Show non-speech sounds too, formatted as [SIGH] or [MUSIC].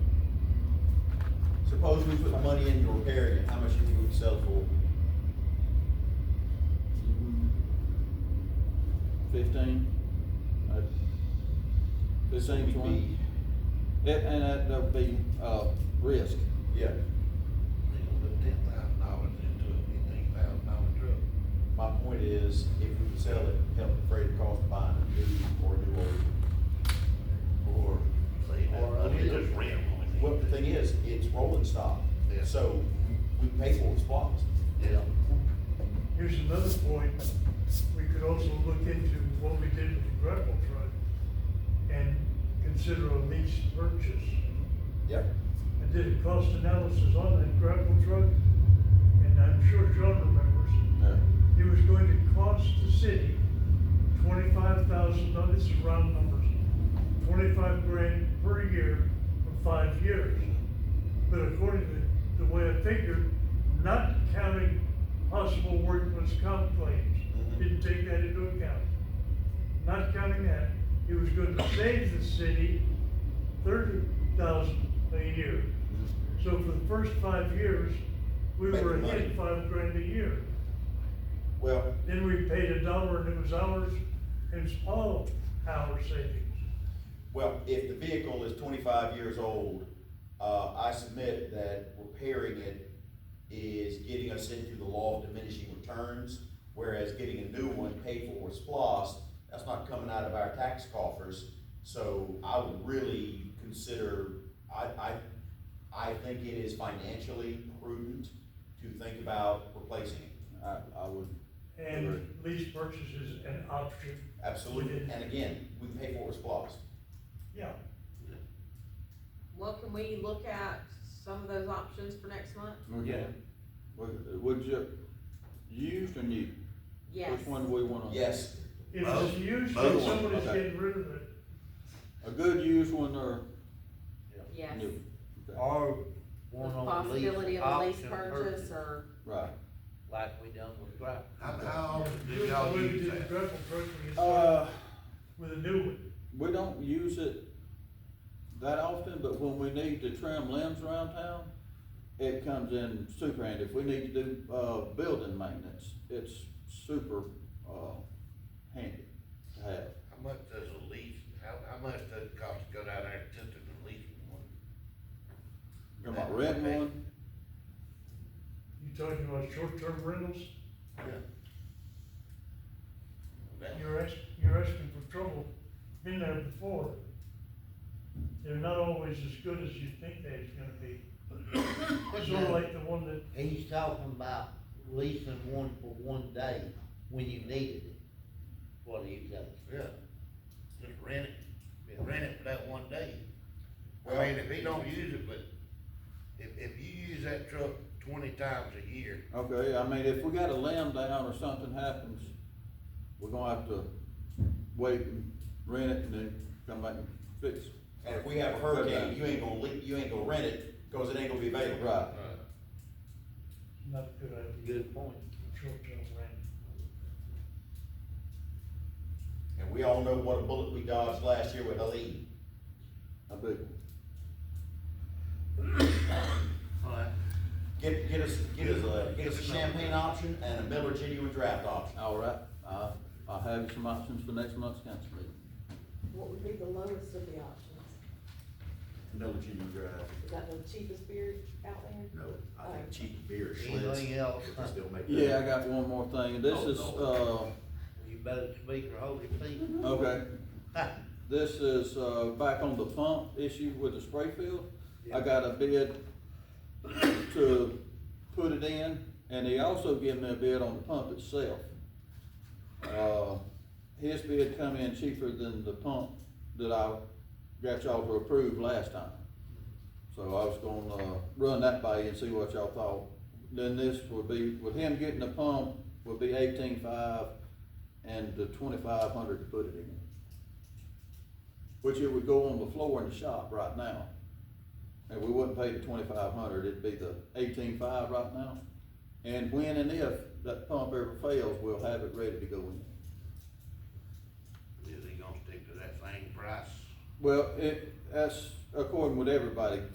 suppose we put the money in to repair it, how much do you think we can sell for? Fifteen? Uh, Fifteen, We'd twenty? Yeah, And that, that would be, uh, risk. be- Yeah, They gonna put ten thousand dollars into a fifteen thousand dollar truck. my point is, if we can sell it, help defray the cost of buying a new or a new old. Or, say, Or I mean, other- just rent one. Well, the thing is, it's rolling stock, Yeah. so we pay for its flaws. Yeah. Here's another point, we could also look into what we did with the Greco truck and consider a lease purchase. Yep. I did a cost analysis on that Greco truck, and I'm sure John remembers, Yeah. it was going to cost the city twenty-five thousand, now this is round numbers, twenty-five grand per year for five years. But according to the way I figured, not counting possible workman's comp claims, Mhm. didn't take that into account. Not counting that, it was going to save the city thirty thousand a year. So for the first five years, we Making were money. ahead five grand a year. Well, Then we paid a dollar and it was ours, and it's all our savings. Well, if the vehicle is twenty-five years old, uh, I submit that repairing it is getting us into the law of diminishing returns, whereas getting a new one paid for with SPOS, that's not coming out of our tax coffers. So I would really consider, I, I, I think it is financially prudent to think about replacing it. I, I would, And lease purchase is an option. Absolutely, and again, we can pay for it with SPOS. Yeah. Well, can we look at some of those options for next month? okay. Would, would you, used or new? Yes. Which one do we wanna? Yes, If Both- it's used, both then of them, somebody's okay. getting rid of it. A good used one or Yes, new? Okay, Or the one on the lease. possibility of a lease option purchase or, Right. Like we done with Grapple. How, how often do Good y'all way we use did the that? Greco truck, we just Uh, with a new one. we don't use it that often, but when we need to trim limbs around town, it comes in super handy. If we need to do, uh, building maintenance, it's super, uh, handy to have. How much does a lease, how, how much does it cost to go down there just to lease one? You're my red one, You talking about short-term rentals? That- You're ask, you're asking for trouble. Been there before. They're not always as good as you think they're gonna [COUGHS] be. Sort of like the one that, He's talking about leasing one for one day when you needed it, what he was asking. Yeah. Just rent it, rent it for that one day. I Well- mean, if he don't use it, but if, if you use that truck twenty times a year, okay, I mean, if we got a limb down or something happens, we're gonna have to wait and rent it and then come back and fix it. and if we have a hurricane, you ain't gonna, le- you ain't gonna rent it, cause it ain't gonna be available. Right. uh, not a good idea, Good point. short-term rent. And we all know what a bullet we dodged last year with Ali. I big one. alright. Get, get us, get us a, get us a champagne option and a Miller genuine draft option. All right, I, I have some options for next month's council meeting. What would be the lowest of the options? Miller genuine draft, Is that the cheapest beer out there? no, I think cheap beer, Schlitz. Oh. Anything else? if they still make that. Yeah, I got one more thing. This Oh, is, uh, Lord. You better speak or hold your peace. okay, Ha, this is, uh, back on the pump issue with the spray field. I Yeah. got a bid to put it in, and he also gave me a bid on the pump itself. Uh, his bid come in cheaper than the pump that I got y'all to approve last time. So I was gonna, uh, run that by you and see what y'all thought. Then this would be, with him getting the pump, would be eighteen-five and the twenty-five hundred to put it in. Which it would go on the floor in the shop right now. And we wouldn't pay the twenty-five hundred, it'd be the eighteen-five right now. And when and if that pump ever fails, we'll have it ready to go in. Is he gonna stick to that same price? Well, it, that's according with everybody,